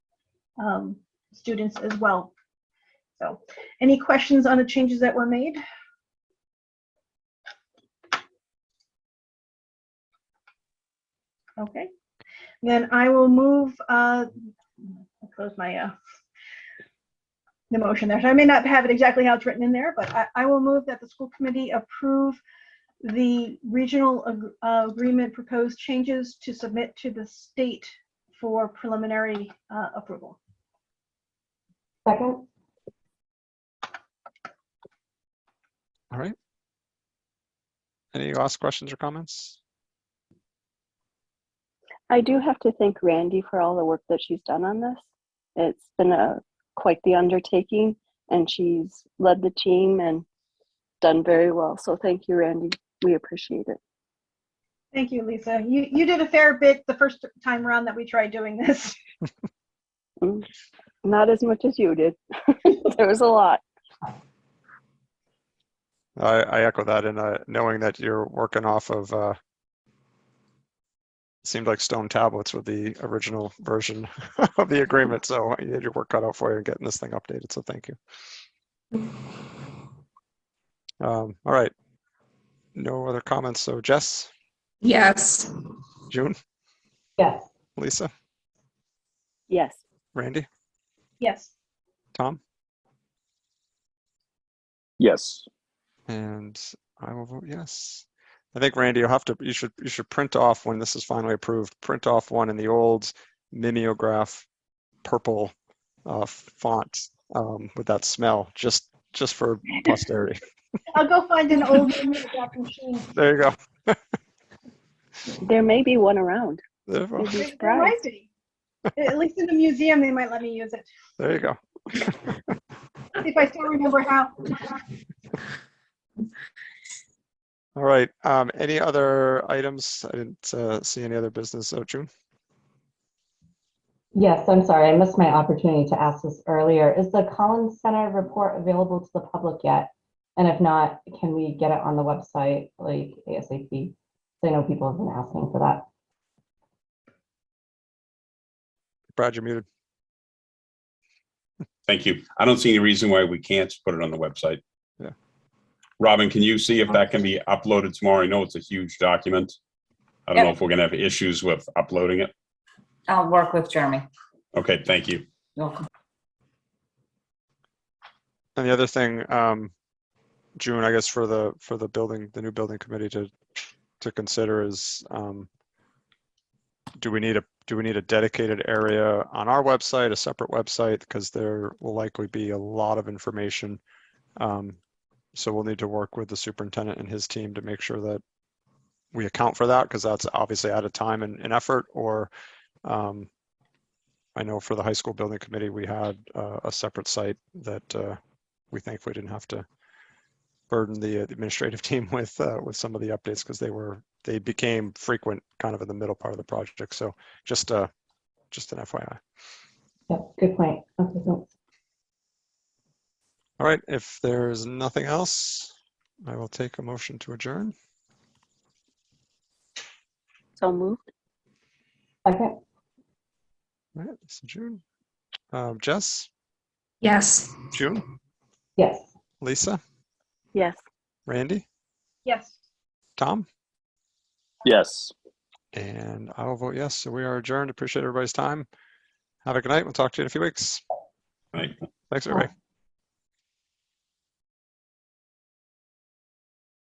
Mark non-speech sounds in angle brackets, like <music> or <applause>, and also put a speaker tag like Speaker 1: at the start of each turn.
Speaker 1: um, students as well. So, any questions on the changes that were made? Okay, then I will move, uh, I'll close my, uh, the motion there. So I may not have it exactly how it's written in there, but I, I will move that the school committee approve the regional ag- uh, agreement proposed changes to submit to the state for preliminary uh, approval.
Speaker 2: Second?
Speaker 3: All right. Any last questions or comments?
Speaker 4: I do have to thank Randy for all the work that she's done on this. It's been a quite the undertaking, and she's led the team and done very well. So thank you, Randy. We appreciate it.
Speaker 1: Thank you, Lisa. You, you did a fair bit the first time around that we tried doing this. <laughs>
Speaker 4: Not as much as you did. <laughs> there was a lot.
Speaker 3: I, I echo that in uh, knowing that you're working off of uh, seemed like stone tablets with the original version <laughs> of the agreement. So you had your work cut out for you in getting this thing updated. So thank you. Um, all right. No other comments. So Jess,
Speaker 5: Yes,
Speaker 3: June,
Speaker 2: Yes.
Speaker 3: Lisa,
Speaker 4: Yes.
Speaker 3: Randy,
Speaker 1: Yes,
Speaker 3: Tom,
Speaker 6: Yes.
Speaker 3: and I will vote yes. I think Randy, you'll have to, you should, you should print off when this is finally approved, print off one in the old mimeograph purple uh, font um, with that smell, just, just for posterity. <laughs>
Speaker 1: I'll go find an
Speaker 4: <laughs>
Speaker 1: old mimeograph machine.
Speaker 3: There you go.
Speaker 4: There may be one around.
Speaker 3: There you go.
Speaker 4: You'd be
Speaker 1: There- there might
Speaker 4: surprised.
Speaker 1: be. At least in the museum, they might let me use it,
Speaker 3: There you go.
Speaker 1: if I still remember how.
Speaker 3: All right. Um, any other items? I didn't uh, see any other business. Oh, June?
Speaker 2: Yes, I'm sorry, I missed my opportunity to ask this earlier. Is the Collins Center report available to the public yet? And if not, can we get it on the website like ASAP? So I know people have been asking for that.
Speaker 3: Brad, you're muted.
Speaker 6: Thank you. I don't see any reason why we can't put it on the website.
Speaker 3: Yeah.
Speaker 6: Robin, can you see if that can be uploaded tomorrow? I know it's a huge document. I don't know if we're gonna have issues with uploading it.
Speaker 7: I'll work with Jeremy.
Speaker 6: Okay, thank you.
Speaker 7: You're welcome.
Speaker 3: And the other thing, um, June, I guess for the, for the building, the new building committee to, to consider is, um, do we need a, do we need a dedicated area on our website, a separate website? Because there will likely be a lot of information. Um, so we'll need to work with the superintendent and his team to make sure that we account for that, because that's obviously out of time and, and effort, or, um, I know for the high school building committee, we had, uh, a separate site that, uh, we thankfully didn't have to burden the uh, the administrative <laughs> team with uh, with some of the updates because they were they became frequent kind of in the middle part of the project. So just uh just an FYI.
Speaker 2: Yep, good point. Okay, thanks.
Speaker 3: All right, if there's nothing else, I will take a motion to adjourn.
Speaker 4: So moved.
Speaker 2: Second?
Speaker 3: All right, this is June, um, Jess,
Speaker 5: yes.
Speaker 3: June,
Speaker 2: Yes.
Speaker 3: Lisa,
Speaker 4: Yes.
Speaker 3: Randy,
Speaker 1: Yes.
Speaker 3: Tom,
Speaker 6: Yes.
Speaker 3: and I will vote yes. So we are adjourned. Appreciate everybody's time. Have a good night. We'll talk to you in a few weeks.
Speaker 6: Right.
Speaker 3: Thanks, everybody.